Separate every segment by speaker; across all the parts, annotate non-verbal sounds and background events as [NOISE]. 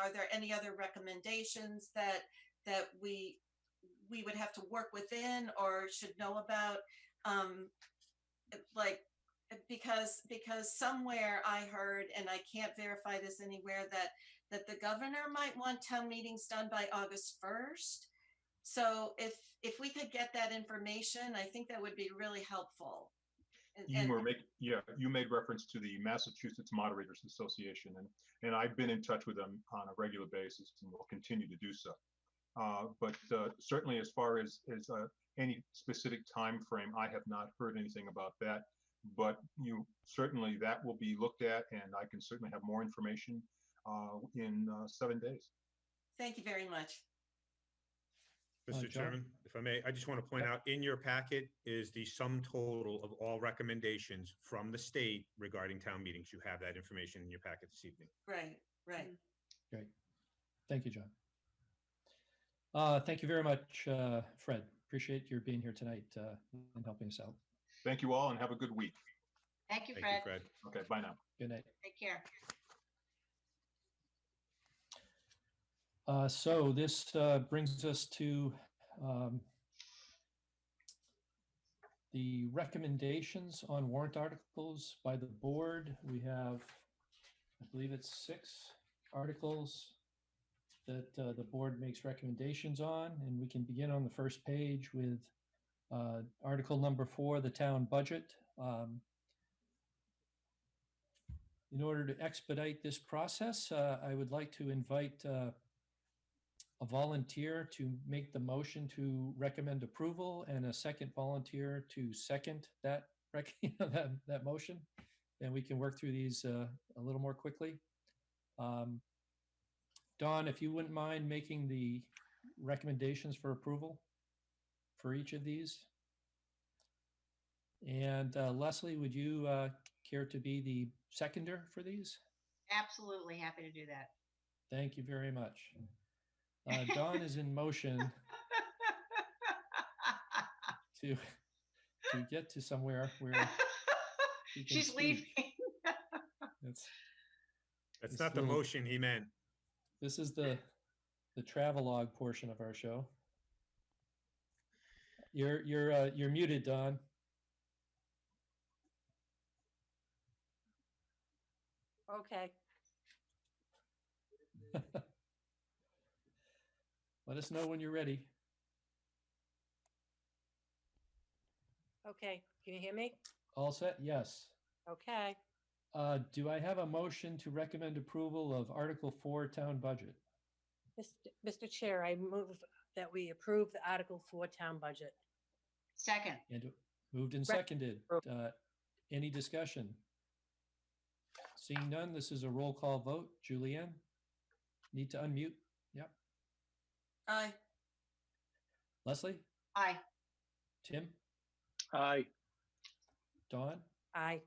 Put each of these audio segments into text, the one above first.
Speaker 1: are there any other recommendations that, that we, we would have to work within or should know about? Um, like, because, because somewhere I heard, and I can't verify this anywhere, that, that the governor might want town meetings done by August first. So if, if we could get that information, I think that would be really helpful. And-
Speaker 2: You
Speaker 1: and-
Speaker 2: were making, yeah, you made reference to the Massachusetts Moderators Association, and, and I've been in touch with them on a regular basis and will continue to do so. Uh, but uh, certainly as far as, as uh, any specific time frame, I have not heard anything about that. But you, certainly that will be looked at, and I can certainly have more information uh, in uh, seven days.
Speaker 1: Thank you very much.
Speaker 3: Uh,
Speaker 4: Mr.
Speaker 3: John?
Speaker 4: Chairman, if I may, I just want to point out, in your packet is the sum total of all recommendations from the state regarding town meetings. You have that information in your packet this evening.
Speaker 1: Right, right.
Speaker 3: Thank you, John. Uh, thank you very much, uh, Fred. Appreciate your being here tonight, uh, and helping us out.
Speaker 2: Thank you all and have a good week.
Speaker 5: Thank you,
Speaker 4: Thank you,
Speaker 5: Fred.
Speaker 4: Fred.
Speaker 2: Okay, bye now.
Speaker 3: Good night.
Speaker 5: Take care.
Speaker 3: Uh, so this, uh, brings us to, um, the recommendations on warrant articles by the board. We have, I believe it's six articles that, uh, the board makes recommendations on, and we can begin on the first page with, uh, article number four, the town budget. Um, in order to expedite this process, uh, I would like to invite, uh, a volunteer to make the motion to recommend approval and a second volunteer to second that rec, [LAUGHS] that, that motion. And we can work through these uh, a little more quickly. Um, Don, if you wouldn't mind making the recommendations for approval for each of these. And uh, Leslie, would you uh, care to be the seconder for these?
Speaker 5: Absolutely happy to do that.
Speaker 3: Thank you very much.
Speaker 5: [LAUGHS]
Speaker 3: Uh, Don is in motion to to get to somewhere where he can
Speaker 5: [LAUGHS] She's
Speaker 3: speak.
Speaker 5: leaving.
Speaker 3: That's,
Speaker 4: That's
Speaker 3: It's
Speaker 4: not the
Speaker 3: little-
Speaker 4: motion he meant.
Speaker 3: this is the the travelogue portion of our show. You're you're uh, you're muted, Don.
Speaker 6: Okay,
Speaker 3: Let us know when you're ready.
Speaker 6: okay. Can you hear me?
Speaker 3: All set? Yes.
Speaker 6: Okay.
Speaker 3: Uh, do I have a motion to recommend approval of Article Four Town Budget?
Speaker 6: Mist- Mr. Chair, I move that we approve the Article 4 Town Budget.
Speaker 5: Second,
Speaker 3: And moved and
Speaker 6: Rec-
Speaker 3: seconded.
Speaker 6: Oh.
Speaker 3: Uh, Any discussion? Seeing none, this is a roll call vote. Julianne? Need to unmute.
Speaker 1: Aye.
Speaker 3: Leslie?
Speaker 5: aye.
Speaker 3: Tim?
Speaker 7: Aye.
Speaker 3: Dawn?
Speaker 6: Aye.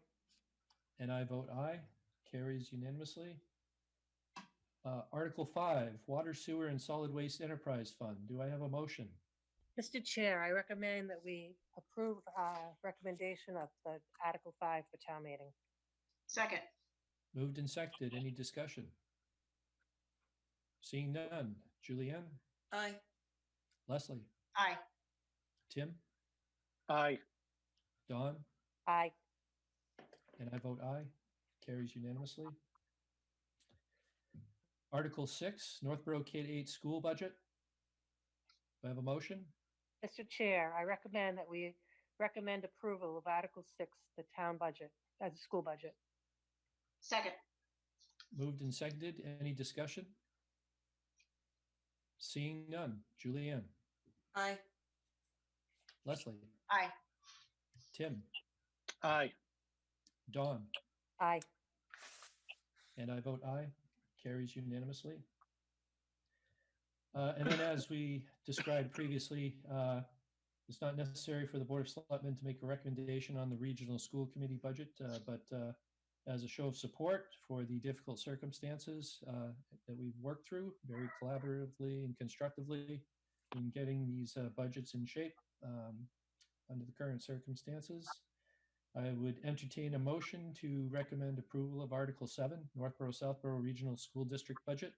Speaker 3: And I vote aye. Carries unanimously. Uh, Article 5, Water Sewer and Solid Waste Enterprise Fund. Do I have a motion?
Speaker 6: Mr. Chair, I recommend that we approve uh, recommendation of the Article 5 for town meeting.
Speaker 5: Second,
Speaker 3: Moved and seconded. Any discussion? Seeing none. Julianne?
Speaker 1: Aye.
Speaker 3: Leslie?
Speaker 5: aye.
Speaker 3: Tim?
Speaker 7: Aye.
Speaker 3: Dawn?
Speaker 6: Aye.
Speaker 3: And I vote aye. Carries unanimously. Article six, Northborough K-8 school budget. Do I have a motion?
Speaker 6: Mr. Chair, I recommend that we recommend approval of Article 6, the town budget, as a school budget.
Speaker 5: Second,
Speaker 3: Moved and seconded. Any discussion? Seeing none. Julianne,
Speaker 1: Aye.
Speaker 3: Leslie,
Speaker 5: aye.
Speaker 3: Tim,
Speaker 7: Aye.
Speaker 3: Dawn,
Speaker 6: Aye.
Speaker 3: And I vote aye. Carries unanimously. Uh, And then as we described previously, uh, it's not necessary for the Board of Selectmen to make a recommendation on the Regional School Committee budget, uh, but uh, as a show of support for the difficult circumstances uh, that we've worked through very collaboratively and constructively in getting these uh, budgets in shape um, under the current circumstances, I would entertain a motion to recommend approval of Article 7, Northborough Southborough Regional School District Budget.